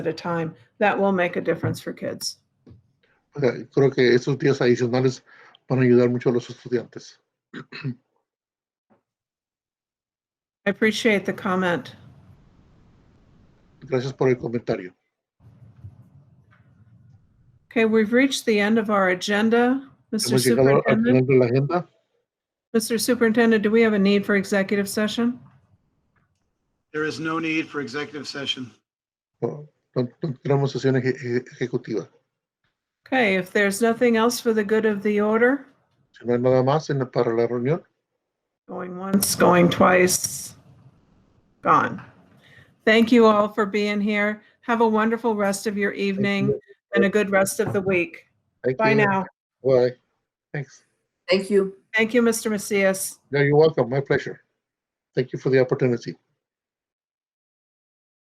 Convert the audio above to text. at a time, that will make a difference for kids. O sea, creo que esos días adicionales van a ayudar mucho a los estudiantes. I appreciate the comment. Gracias por el comentario. Okay, we've reached the end of our agenda. Mr. Hemos llegado al Superintendent, final de la agenda. Mr. Superintendent, do we have a need for executive session? There is no need for executive session. No, no- no tenemos sesión eje- eje- ejecutiva. Okay, if there's nothing else for the good of the order, Si no hay nada más en la- para la reunión, going once, going twice, gone. Thank you all for being here. Have a wonderful rest of your evening and a good rest of the week. thank Bye you. now. Bye. Thanks. Thank you. Thank you, Mr. Macias. No, you're welcome. My pleasure. Thank you for the opportunity.